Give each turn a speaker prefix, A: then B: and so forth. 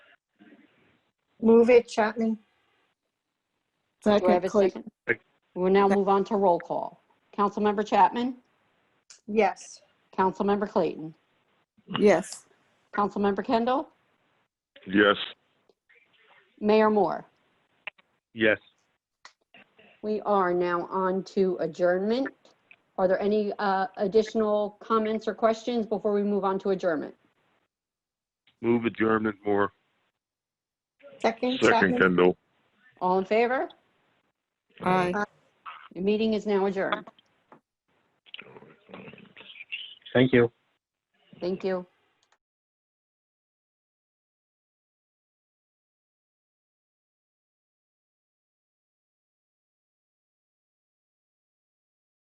A: Move it, Chapman.
B: Do I have a second? We'll now move on to roll call. Councilmember Chapman?
A: Yes.
B: Councilmember Clayton?
C: Yes.
B: Councilmember Kendall?
D: Yes.
B: Mayor Moore?
D: Yes.
B: We are now on to adjournment. Are there any uh, additional comments or questions before we move on to adjournment?
D: Move adjournment more.
A: Second,
D: Second
A: Chapman.
D: Kendall.
B: All in favor?
C: Aye.
B: The meeting is now adjourned.
E: Thank you.
B: Thank you.